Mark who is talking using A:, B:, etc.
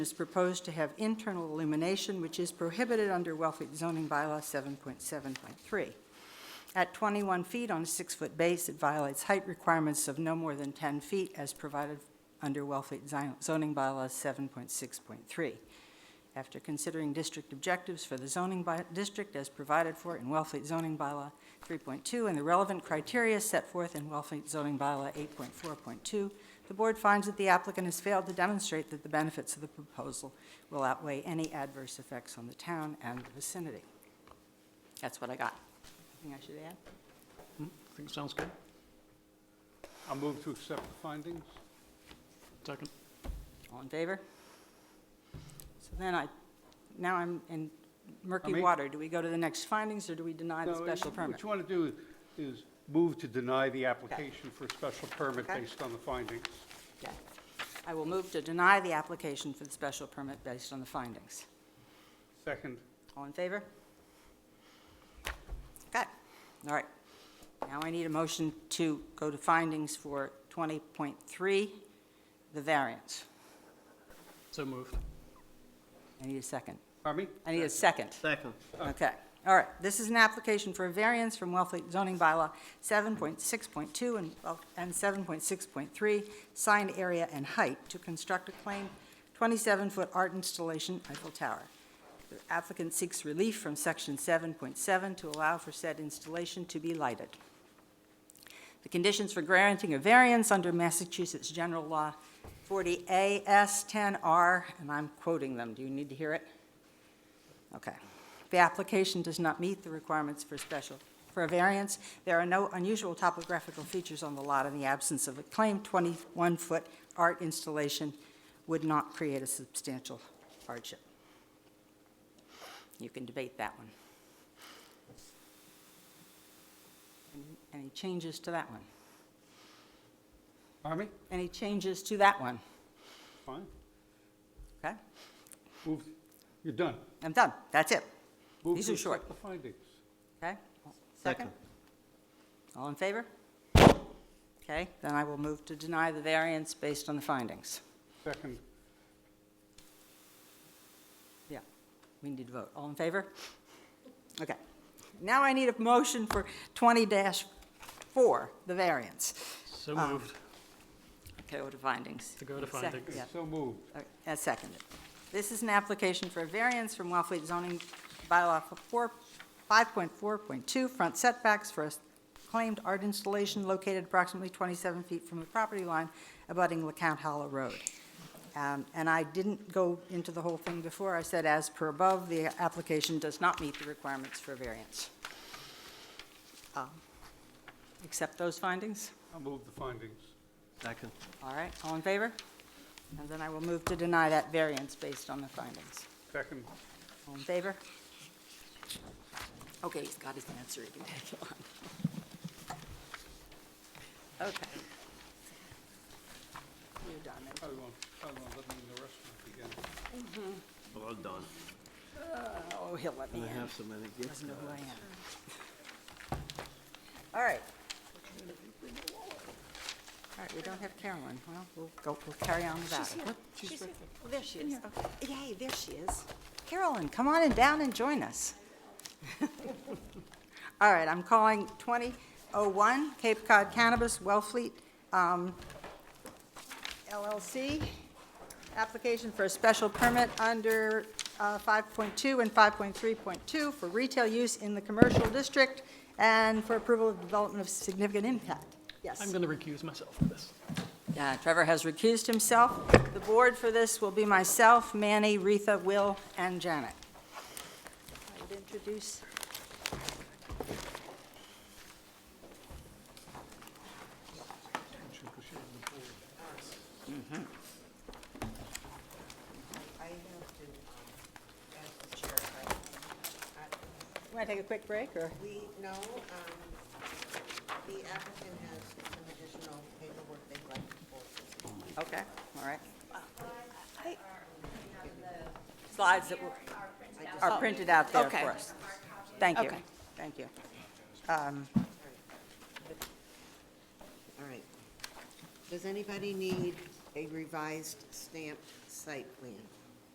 A: is proposed to have internal illumination, which is prohibited under Wellfleet zoning bylaw 7.7.3. At 21 feet on a six-foot base, it violates height requirements of no more than 10 feet as provided under Wellfleet zi- zoning bylaw 7.6.3. After considering district objectives for the zoning by, district as provided for in Wellfleet zoning bylaw 3.2 and the relevant criteria set forth in Wellfleet zoning bylaw 8.4.2, the board finds that the applicant has failed to demonstrate that the benefits of the proposal will outweigh any adverse effects on the town and the vicinity. That's what I got. Anything I should add?
B: I think it sounds good.
C: I'll move to accept the findings.
B: Second.
A: All in favor? So then I, now I'm in murky
C: I mean-
A: water. Do we go to the next findings, or do we deny the
C: No,
A: special permit?
C: What you want to do is move to deny the application for a special permit
A: Okay.
C: based on the findings.
A: Okay. I will move to deny the application for the special permit based on the findings.
C: Second,
A: All in favor? Okay, all right. Now I need a motion to go to findings for 20.3, the variance.
B: So moved.
A: I need a second.
C: pardon me?
A: I need a second.
B: Second.
A: Okay, all right. This is an application for a variance from Wellfleet zoning bylaw 7.6.2 and well, and 7.6.3, sign area and height, to construct a claimed 27-foot art installation Eiffel Tower. The applicant seeks relief from Section 7.7 to allow for said installation to be lighted. The conditions for granting a variance under Massachusetts General Law 40A S10R, and I'm quoting them. Do you need to hear it? Okay. The application does not meet the requirements for special, for a variance. There are no unusual topographical features on the lot, and the absence of a claimed 21-foot art installation would not create a substantial hardship. You can debate that one. Any- Any changes to that one?
C: Pardon me?
A: Any changes to that one?
C: Fine.
A: Okay,
C: Move, you're done.
A: I'm done. That's it.
C: Move
A: These
C: to
A: are short.
C: accept the findings.
A: Okay? Second? All in favor? Okay, then I will move to deny the variance based on the findings.
C: Second,
A: Yeah, we need to vote. All in favor? Okay. Now I need a motion for 20-4, the variance.
B: So
A: Um,
B: moved.
A: Okay, what are findings?
B: To go to
A: Second,
B: findings.
A: yeah.
C: so moved.
A: All right, uh, As seconded. This is an application for a variance from Wellfleet zoning bylaw for four- 5.4.2, front setbacks for a claimed art installation located approximately 27 feet from the property line abutting LeCount Hollow Road. Um, And I didn't go into the whole thing before. I said, as per above, the application does not meet the requirements for variance. Um, Accept those findings?
C: I'll move the findings.
B: Second.
A: All right, all in favor? And then I will move to deny that variance based on the findings.
C: Second,
A: All in favor? Okay, he's got his answer, he can take it on. Okay. You're done.
C: I won't, I won't let me in the restaurant again.
D: Well done.
A: Oh, he'll let me
D: I
A: in,
D: have so many
A: doesn't
D: gifts.
A: know who I am. All right. All right, we don't have Carolyn, well, we'll go, we'll carry on without her. What? She's right there. Oh, there she is, Okay. yay, there she is. Carolyn, come on in down and join us. All right, I'm calling 2001 Cape Cod Cannabis Wellfleet um, LLC, application for a special permit under uh, 5.2 and 5.3.2 for retail use in the commercial district and for approval of development of significant impact. Yes.
B: I'm going to recuse myself from this.
A: Uh, Trevor has recused himself. The board for this will be myself, Manny, Retha, Will, and Janet. I would introduce. Want to uh, take a quick break, or?
E: We know, um, the applicant has some additional paperwork they'd like to forward.
A: Okay, all right. Slides that were- are printed out there
F: Okay.
A: for us. Thank you,
F: Okay.
A: thank you.
E: All right. Does anybody need a revised stamped site plan?